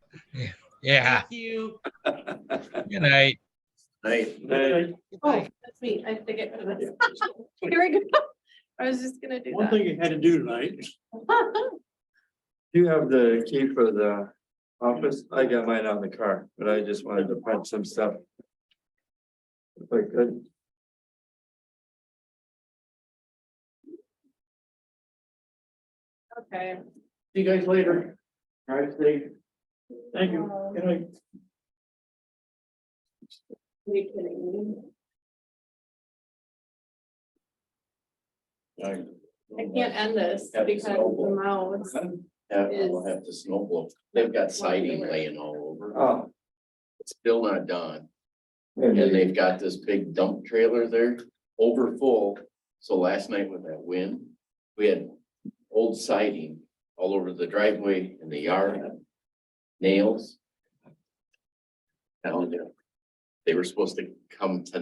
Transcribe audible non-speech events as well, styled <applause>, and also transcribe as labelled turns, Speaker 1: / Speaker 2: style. Speaker 1: Yeah,
Speaker 2: Thank you.
Speaker 1: good night.
Speaker 3: Right.
Speaker 4: Hey,
Speaker 2: Oh, that's me. I forget. to this. <laughs> Here we go. I was just gonna do
Speaker 4: One
Speaker 2: that.
Speaker 4: thing you had to do tonight. Do you have the key for the office? I got mine on the car, but I just wanted to punch some stuff. If I could.
Speaker 2: <laughs> Okay.
Speaker 4: See you guys later. All right, see. Thank
Speaker 2: you. Good
Speaker 4: night.
Speaker 2: Are you kidding me? I can't end this
Speaker 3: Have to
Speaker 2: because
Speaker 3: snowball.
Speaker 2: the mouse.
Speaker 3: Yeah, we'll have to snow blow. They've got siding laying all over.
Speaker 4: Oh.
Speaker 3: It's still not done. And they've got this big dump trailer there over full. So last night with that wind, we had old siding all over the driveway and the yard. Nails. Down there. They were supposed to come tonight.